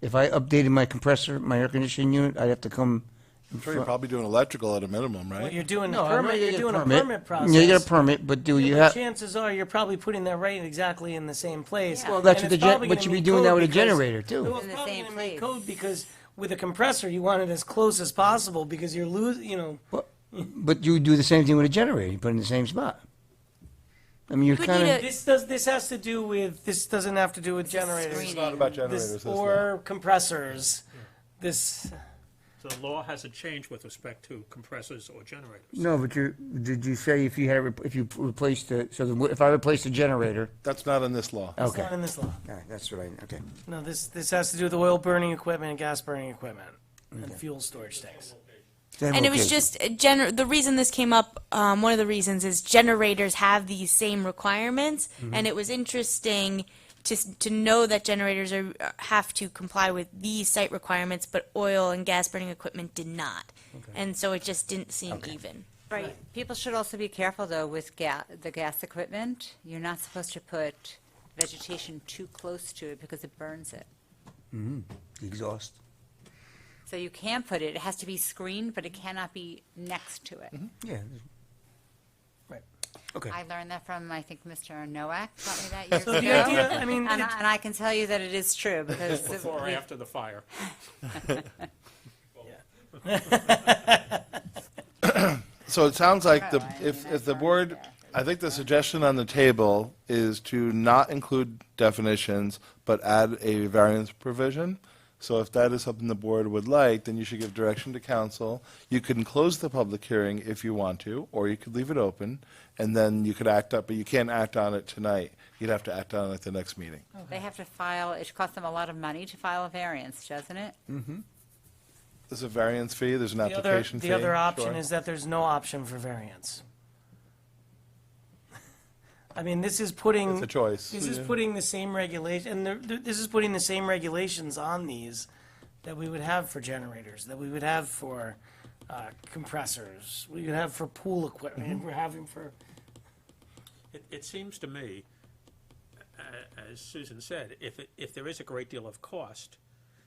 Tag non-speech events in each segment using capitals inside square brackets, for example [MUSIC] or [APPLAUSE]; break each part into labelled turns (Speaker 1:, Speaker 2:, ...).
Speaker 1: if I updated my compressor, my air conditioning unit, I'd have to come. in
Speaker 2: Sure, you're
Speaker 1: front-
Speaker 2: probably doing electrical at a minimum,
Speaker 3: Well,
Speaker 2: right?
Speaker 3: you're doing a
Speaker 1: No, I know
Speaker 3: permit,
Speaker 1: you
Speaker 3: you're
Speaker 1: get
Speaker 3: doing a permit process.
Speaker 1: Yeah, you get a permit, but do
Speaker 3: Yeah,
Speaker 1: you
Speaker 3: but
Speaker 1: have?
Speaker 3: Chances are, you're probably putting that right exactly in the same place.
Speaker 1: Well, that's
Speaker 3: And
Speaker 1: what
Speaker 3: it's
Speaker 1: the gen-
Speaker 3: probably
Speaker 1: what
Speaker 3: gonna
Speaker 1: you'd be
Speaker 3: meet
Speaker 1: doing
Speaker 3: code
Speaker 1: now with a
Speaker 3: because-
Speaker 1: generator, too.
Speaker 3: Well,
Speaker 4: In
Speaker 3: it's
Speaker 4: the
Speaker 3: probably
Speaker 4: same
Speaker 3: gonna meet
Speaker 4: place.
Speaker 3: code because with a compressor, you want it as close as possible because you're losing, you know,
Speaker 1: Well, But you do the same thing with a generator, you put it in the same spot. I mean, you're
Speaker 4: But
Speaker 1: kind
Speaker 4: you
Speaker 1: of,
Speaker 4: do-
Speaker 3: this does, this has to do with, this doesn't have to do with generators.
Speaker 4: screening. It's not
Speaker 2: about
Speaker 3: This- Or compressors. This,
Speaker 5: The law hasn't changed with respect to compressors or generators.
Speaker 1: no, but you, did you say if you had, rep- if you replaced the, so the- if I replaced the generator?
Speaker 2: That's not in this law.
Speaker 3: it's
Speaker 1: Okay,
Speaker 3: not
Speaker 1: all
Speaker 3: in this law.
Speaker 1: right, that's what I, okay.
Speaker 3: No, this, this has to do with oil burning equipment and gas burning equipment and fuel storage tanks.
Speaker 4: And it was
Speaker 1: Okay.
Speaker 4: just uh, gener- the reason this came up. Um, one of the reasons is generators have these same requirements, and it was interesting to s- to know that generators are uh, have to comply with these site requirements, but oil and gas burning equipment did not, and so it just didn't seem even.
Speaker 6: Right, people should also be careful, though, with ga- the gas equipment. You're not supposed to put vegetation too close to it because it burns it.
Speaker 1: Exhaust.
Speaker 6: So you can put it, it has to be screened, but it cannot be next to it.
Speaker 5: Mm-hmm.
Speaker 1: Yeah.
Speaker 3: Right.
Speaker 1: Okay.
Speaker 6: I learned that from, I think, Mr. Nowak taught me that
Speaker 4: [LAUGHS]
Speaker 6: years
Speaker 3: So the idea,
Speaker 6: ago.
Speaker 3: I mean,
Speaker 6: And
Speaker 3: it-
Speaker 6: I and I can tell you that it is true because.
Speaker 5: [LAUGHS] Before or
Speaker 6: we-
Speaker 5: after the fire.
Speaker 2: So it sounds like the,
Speaker 6: Right,
Speaker 2: if,
Speaker 6: and
Speaker 2: if the
Speaker 6: that's
Speaker 2: board,
Speaker 6: already there.
Speaker 2: I think the suggestion on the table is to not include definitions, but add a variance provision. So if that is something the board would like, then you should give direction to council. You can close the public hearing if you want to, or you could leave it open, and then you could act up, but you can't act on it tonight. You'd have to act on it at the next meeting.
Speaker 6: They have to file, it costs them a lot of money to file a variance, doesn't it?
Speaker 2: There's a variance fee, there's an
Speaker 3: the other,
Speaker 2: application fee.
Speaker 3: the other option
Speaker 2: Sure.
Speaker 3: is that there's no option for variance. [LAUGHS] I mean, this is putting.
Speaker 2: It's a choice.
Speaker 3: This is putting the same regulation, and there- there- this is putting the same regulations on these that we would have for generators, that we would have for uh, compressors, we would have for pool
Speaker 2: Mm-hmm.
Speaker 3: equipment, we're having for,
Speaker 5: It, it seems to me, a- as Susan said, if, it- if there is a great deal of cost,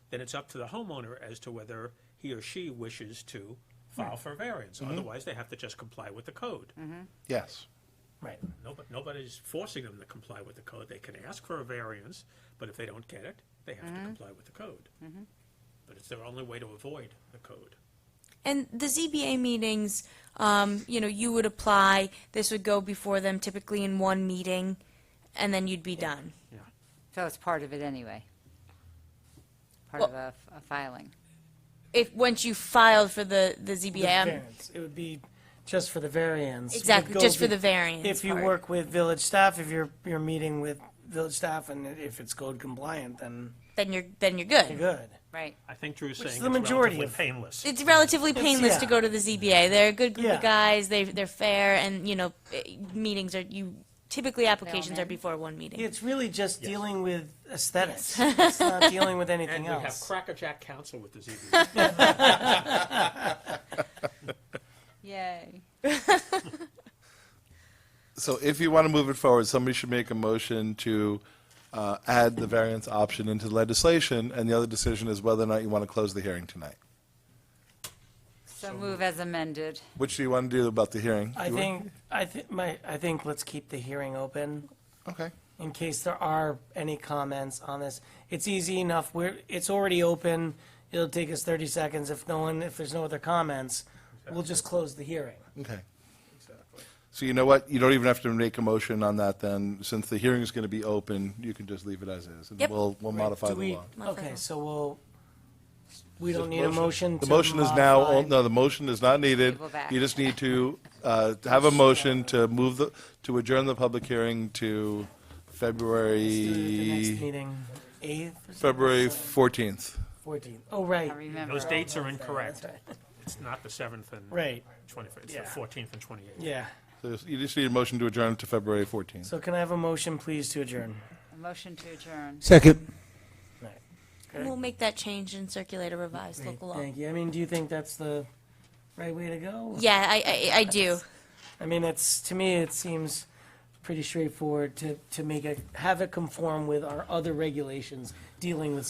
Speaker 5: then it's up to the homeowner as to whether he or she wishes to file for variance. Otherwise, they have to just comply with the code.
Speaker 2: Yes.
Speaker 3: right.
Speaker 5: Nobo- Nobody's forcing them to comply with the code. They can ask for a variance, but if they don't get it, they have to comply with the code. But it's their only way to avoid the code.
Speaker 4: And the ZBA meetings, um, you know, you would apply. This would go before them, typically in one meeting, and then you'd be done.
Speaker 6: So it's part of it anyway. Part of a a filing.
Speaker 4: If once you filed for the the ZBA,
Speaker 3: the
Speaker 4: I'm-
Speaker 3: variance. It would be just for the variance. We'd
Speaker 4: um, Exactly,
Speaker 3: go
Speaker 4: just for
Speaker 3: be-
Speaker 4: the variance
Speaker 3: If you
Speaker 4: part.
Speaker 3: work with village staff, if you're, you're meeting with village staff and if it's code compliant, then
Speaker 4: then you're then you're
Speaker 3: you're
Speaker 4: good.
Speaker 3: good.
Speaker 6: Right.
Speaker 5: I think Drew's
Speaker 3: Which
Speaker 5: saying it's
Speaker 3: the majority
Speaker 5: relatively
Speaker 3: of-
Speaker 5: painless.
Speaker 4: It's relatively painless to
Speaker 3: yeah.
Speaker 4: go to the ZBA. They're a good group
Speaker 3: Yeah.
Speaker 4: of guys. They they're fair, and you know, eh, meetings are you typically applications are
Speaker 6: in.
Speaker 4: before one meeting.
Speaker 3: It's really just dealing with aesthetics. It's not dealing with
Speaker 5: And
Speaker 3: anything
Speaker 5: we have
Speaker 3: else.
Speaker 5: crackerjack counsel with the
Speaker 3: [LAUGHS]
Speaker 5: ZBA.
Speaker 6: Yay.
Speaker 2: So if you want to move it forward, somebody should make a motion to uh, add the variance option into legislation, and the other decision is whether or not you want to close the hearing tonight.
Speaker 6: So move as amended.
Speaker 2: Which do you want to do about the hearing?
Speaker 3: I
Speaker 2: You want-
Speaker 3: think, I think, my, I think let's keep the hearing open
Speaker 2: Okay.
Speaker 3: in case there are any comments on this. It's easy enough. We're, it's already open. It'll take us thirty seconds. If no one, if there's no other comments, we'll just close the hearing.
Speaker 2: Okay. So you know what? You don't even have to make a motion on that then. Since the hearing is going to be open, you can just leave it as is. and
Speaker 4: Yep.
Speaker 2: We'll, we'll modify
Speaker 3: Do
Speaker 2: the
Speaker 3: we-
Speaker 2: law.
Speaker 3: Okay, so we'll, we don't need a motion to
Speaker 2: The motion is now,
Speaker 3: modify-
Speaker 2: o- no, the motion is not needed.
Speaker 6: Table back.
Speaker 2: You just need to uh, to have a motion to move the, to adjourn the public hearing to
Speaker 3: Do it at The next
Speaker 2: February,
Speaker 3: meeting, eighth,
Speaker 2: February 14th.
Speaker 3: fourteenth. Oh,
Speaker 6: I
Speaker 3: right,
Speaker 6: remember.
Speaker 5: Those dates are
Speaker 3: that's
Speaker 5: incorrect.
Speaker 3: right.
Speaker 5: It's not the 7th and
Speaker 3: Right,
Speaker 5: 25th, it's the
Speaker 3: Yeah.
Speaker 5: 14th and 28th.
Speaker 3: yeah.
Speaker 2: So You just need a motion to adjourn to February 14th.
Speaker 3: So can I have a motion, please, to adjourn?
Speaker 6: A Motion to adjourn.
Speaker 1: Second.
Speaker 4: And we'll make that change and circulate a revised local law.
Speaker 3: Thank you. I mean, do you think that's the right way to go?
Speaker 4: Yeah, I, I I do.
Speaker 3: I mean, it's, to me, it seems pretty straightforward to, to make it, have it conform with our other regulations dealing with